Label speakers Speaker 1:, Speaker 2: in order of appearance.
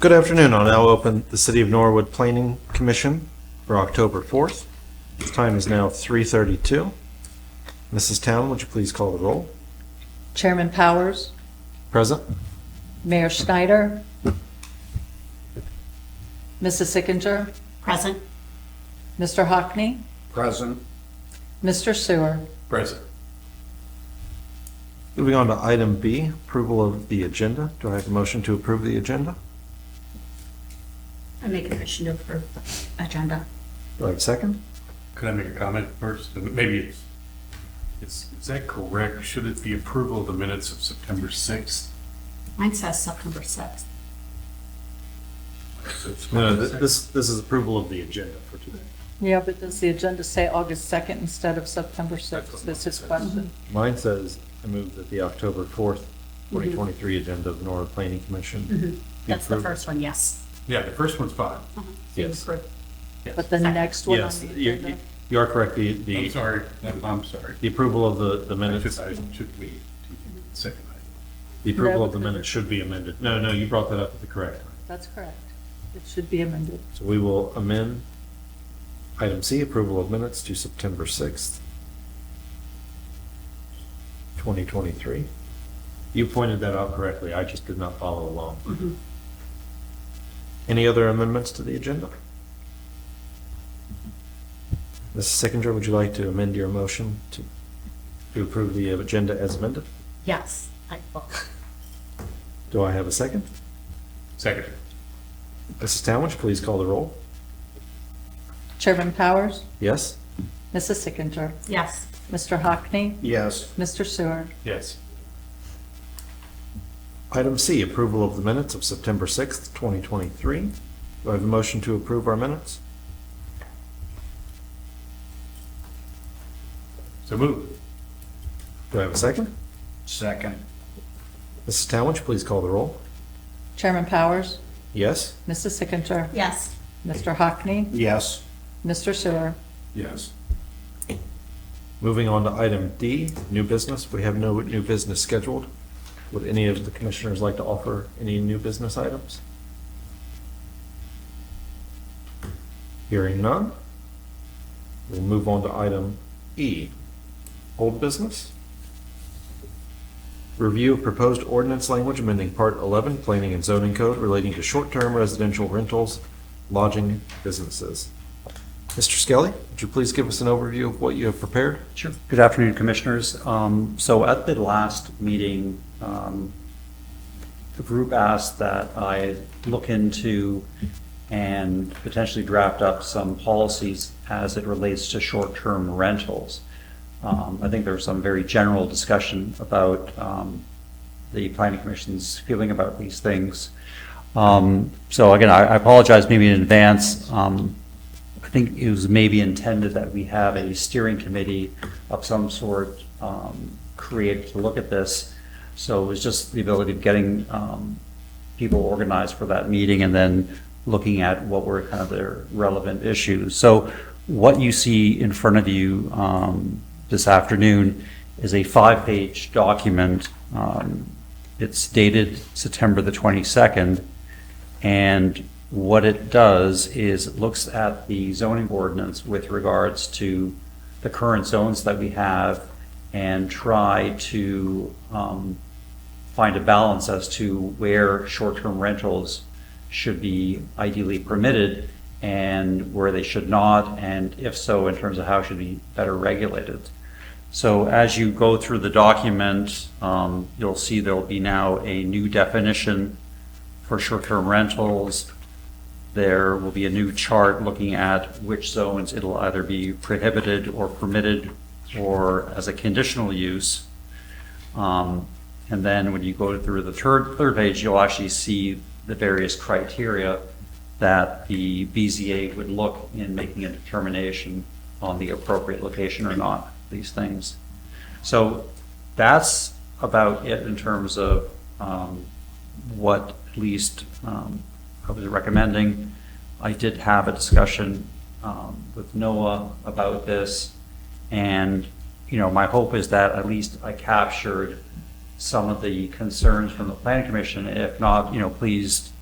Speaker 1: Good afternoon. I'll now open the City of Norwood Planning Commission for October 4th. The Time is now 3:32. Mrs. Town, would you please call the roll?
Speaker 2: Chairman Powers,
Speaker 1: Present?
Speaker 2: Mayor Schneider, Mrs. Sickinger,
Speaker 3: Present.
Speaker 2: Mr. Hockney,
Speaker 4: Present.
Speaker 2: Mr. Sewer.
Speaker 4: Present.
Speaker 1: Moving on to item B, approval of the agenda. Do I have a motion to approve the agenda?
Speaker 3: I make a motion to approve agenda.
Speaker 1: Do I have a second?
Speaker 4: Could I make a comment first? Maybe it's, is, is that correct? Should it be approval of the minutes of September sixth?
Speaker 3: Mine says September sixth.
Speaker 1: No, th- this, this is approval of the agenda for today.
Speaker 2: Yeah, but does the agenda say August 2nd instead of September 6th? That's his question.
Speaker 1: Mine says, I move that the October 4th, 2023 agenda of Norwood Planning Commission. be
Speaker 3: That's the
Speaker 1: approved.
Speaker 3: first one, yes.
Speaker 4: Yeah, the first one's fine.
Speaker 1: Yes.
Speaker 3: Approved.
Speaker 2: But the next one on
Speaker 1: Yes,
Speaker 2: the
Speaker 1: you-
Speaker 2: agenda?
Speaker 1: you- you are correct. The,
Speaker 4: I'm
Speaker 1: the
Speaker 4: sorry, I'm, I'm sorry.
Speaker 1: the approval of the, the
Speaker 4: I
Speaker 1: minutes,
Speaker 4: should, I should be, second item.
Speaker 1: the approval
Speaker 2: No.
Speaker 1: of the minutes should be amended. No, no, you brought that up at the correct time.
Speaker 2: That's correct. It should be amended.
Speaker 1: So we will amend item C, approval of minutes to September 6th, 2023. You pointed that out correctly. I just did not follow along. Any other amendments to the agenda? Mrs. Sickinger, would you like to amend your motion to, to approve the agenda as amended?
Speaker 3: Yes, I will.
Speaker 1: Do I have a second?
Speaker 4: Second.
Speaker 1: Mrs. Town, would you please call the roll?
Speaker 2: Chairman Powers,
Speaker 1: Yes?
Speaker 2: Mrs. Sickinger,
Speaker 3: Yes.
Speaker 2: Mr. Hockney,
Speaker 4: Yes.
Speaker 2: Mr. Sewer.
Speaker 4: Yes.
Speaker 1: Item C, approval of the minutes of September 6th, 2023. Do I have a motion to approve our minutes?
Speaker 4: So move.
Speaker 1: Do I have a second?
Speaker 4: Second.
Speaker 1: Mrs. Town, would you please call the roll?
Speaker 2: Chairman Powers,
Speaker 1: Yes?
Speaker 2: Mrs. Sickinger,
Speaker 3: Yes.
Speaker 2: Mr. Hockney,
Speaker 4: Yes.
Speaker 2: Mr. Sewer.
Speaker 4: Yes.
Speaker 1: Moving on to item D, new business. We have no new business scheduled. Would any of the commissioners like to offer any new business items? Hearing none, we'll move on to item E, old business. Review of proposed ordinance language amending Part 11 Planning and Zoning Code relating to short-term residential rentals, lodging businesses. Mr. Skelly, would you please give us an overview of what you have prepared?
Speaker 5: Sure. Good afternoon, Commissioners. Um, So at the last meeting, um, the group asked that I look into and potentially draft up some policies as it relates to short-term rentals. Um, I think there was some very general discussion about um, the planning commission's feeling about these things. Um, So again, I I apologize maybe in advance. Um, I think it was maybe intended that we have a steering committee of some sort um, created to look at this. So it was just the ability of getting um, people organized for that meeting and then looking at what were kind of their relevant issues. So what you see in front of you um, this afternoon is a five-page document. Um, It's dated September the 22nd. And what it does is it looks at the zoning ordinance with regards to the current zones that we have and try to um, find a balance as to where short-term rentals should be ideally permitted and where they should not, and if so, in terms of how it should be better regulated. So as you go through the document, um, you'll see there'll be now a new definition for short-term rentals. There will be a new chart looking at which zones it'll either be prohibited or permitted or as a conditional use. Um, And then when you go through the third, third page, you'll actually see the various criteria that the BZA would look in making a determination on the appropriate location or not, these things. So that's about it in terms of um, what at least um, I was recommending. I did have a discussion um, with Noah about this, and, you know, my hope is that at least I captured some of the concerns from the planning commission. If not, you know, please